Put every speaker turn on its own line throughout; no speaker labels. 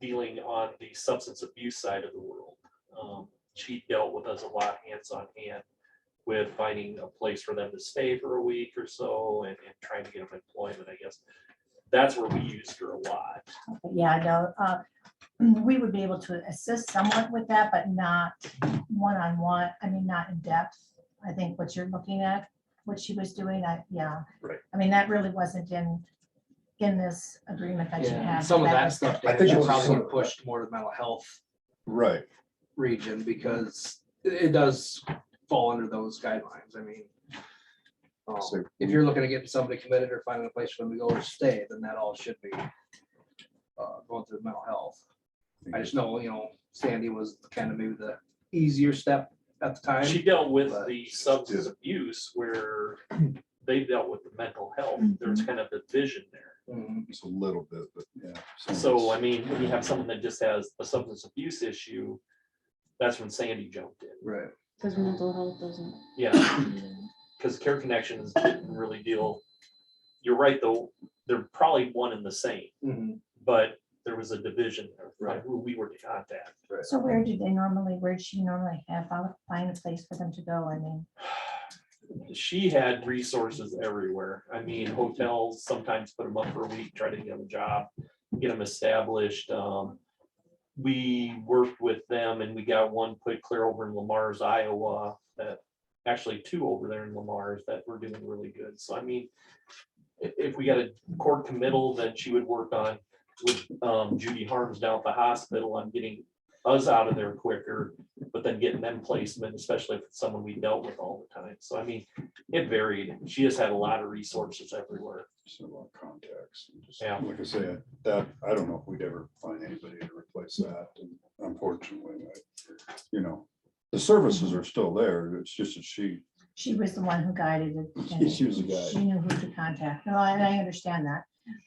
dealing on the substance abuse side of the world. Um, She dealt with us a lot hands on hand with finding a place for them to stay for a week or so and, and trying to get them employment, I guess. That's where we used her a lot.
But Yeah, no, uh, we would be able to assist somewhat with that, but not one-on-one, I mean, not in depth. I think what you're looking at, what she was doing, I, yeah.
Right.
I mean, that really wasn't in, in this agreement that you
Yeah,
have.
and some of
but
that
was-
stuff,
I
Dave,
think it
you
was
probably
some
would
of
have pushed more to the mental health
Right,
region because it it does fall under those guidelines, I mean. um,
So-
If you're looking at getting somebody committed or finding a place for them to go or stay, then that all should be uh, going through mental health. I just know, you know, Sandy was kind of maybe the easier step at the time.
She dealt with
But-
the substance abuse where they dealt with the mental health. There's kind of a division there.
Mhm.
just a little bit, but yeah.
So, I mean, when you have someone that just has a substance abuse issue, that's when Sandy jumped in.
Right,
Because mental health doesn't.
Yeah, because Care Connections didn't really deal, you're right, though, they're probably one and the same,
Mhm.
but there was a division there,
Right.
like who we were to contact.
So where do they normally, where would she normally have, I would find a place for them to go, I mean,
She had resources everywhere. I mean, hotels sometimes put them up for a week, try to get them a job, get them established. Um, We worked with them and we got one put clear over in Lamar's, Iowa, that, actually two over there in Lamar's that were doing really good. So I mean, if, if we got a court committal that she would work on with um, Judy Harms down at the hospital on getting us out of there quicker, but then getting them placement, especially if it's someone we dealt with all the time. So I mean, it varied. She just had a lot of resources everywhere.
Just a lot of contacts. and just-
Yeah.
Like I said, that, I don't know if we'd ever find anybody to replace that, and unfortunately, I- you know. The services are still there, it's just that she,
she was the one who guided it. and
she was a guy.
She knew who to contact. No, and I understand that.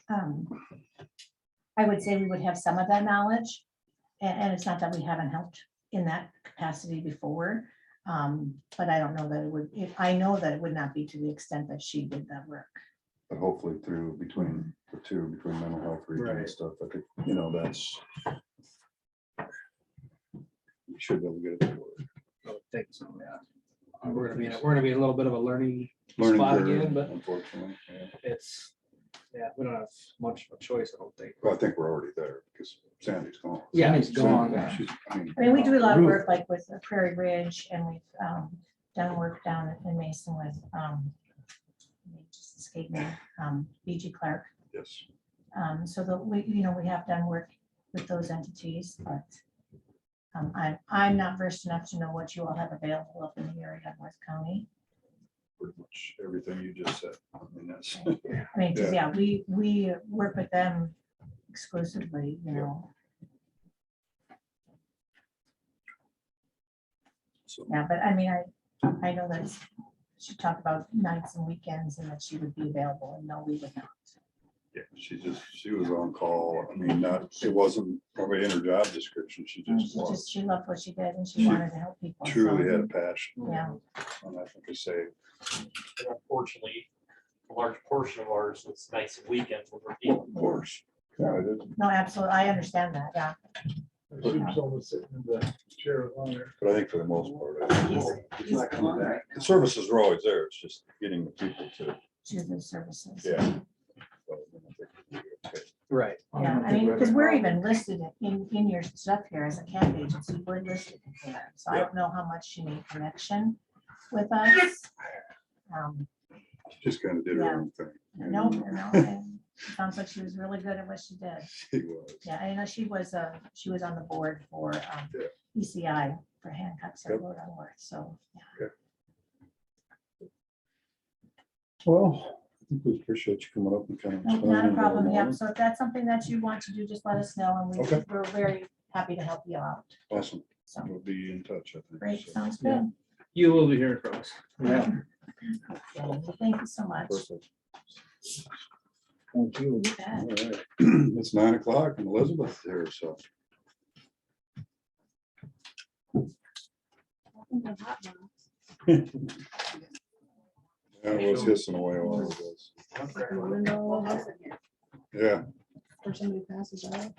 Um, I would say we would have some of that knowledge. a- And, it's not that we haven't helped in that capacity before. Um, but I don't know that it would, if, I know that it would not be to the extent that she did that work.
But hopefully through, between the two, between mental health region
Right.
and stuff, I think, you know, that's. we Should be able to get it. to work.
I would think so, yeah. Uh, We're gonna be, in a- we're gonna be in a little bit of a learning
Learning
Spot
curve,
again, but-
Unfortunately, yeah.
it's, yeah, we don't have much of a choice, I don't think.
Well, I think we're already there, because Sandy's gone.
Yeah, it's gone.
Sandy, she's-
I mean, we do a lot of
Ruth.
work like with Prairie Ridge and we've, um, done work down in Mason with, um, just escaped me, um, BG Clark.
Yes.
Um, so that we, you know, we have done work with those entities, but um, I, I'm not versed enough to know what you all have available up in the area of North County.
pretty much everything you just said. I mean, that's,
I mean, 'cause,
Yeah.
yeah, we, we work with them exclusively, you
Yeah.
know,
so,
yeah, but I mean, I, I know that she talked about nights and weekends and that she would be available and no, we would not.
yeah, she just, she was on call. I mean, not, it wasn't probably in her job description. She
And Mm,
just
She just,
was
she loved what she did and she
She
wanted to help people. so-
truly had a passion.
Yeah.
And I think they say,
And Unfortunately, a large portion of ours was nights and weekends when we're
well,
dealing.
of course. Yeah, it is.
No, absolutely, I understand that, yeah.
She was almost sitting in the chair of honor.
But I think for the most part, I think
She's not coming back.
the services were always there. It's just getting the people to,
Choose those services.
yeah. So, I think we'll be okay.
Right.
Yeah, I mean, because we're even listed in, in your stuff here as a cat agency, we're listed in there, so I don't know how much she made connection with us. Um,
She Just kind of did her own thing.
No, no, and it sounds like she was really good at what she did,
She was.
yeah, I know she was, uh, she was on the board for, um,
Yeah.
ECI for Hancock, so I
Yep.
wrote on work, so, yeah.
Well, I think we appreciate you coming up and kind of.
No, Not a
explaining
problem,
all
yeah,
that.
so if that's something that you want to do, just let us know, and we,
Okay.
we're very happy to help you out,
Awesome.
so,
We'll be in touch, I think.
great,
so.
sounds good.
You will be hearing from us.
Yeah. Thank you so much.
Perfect. Thank you.
You bet.
All right. It's nine o'clock and Elizabeth's here, so yeah, I was hissing away all of this.
Window,
Yeah,
or somebody passes out.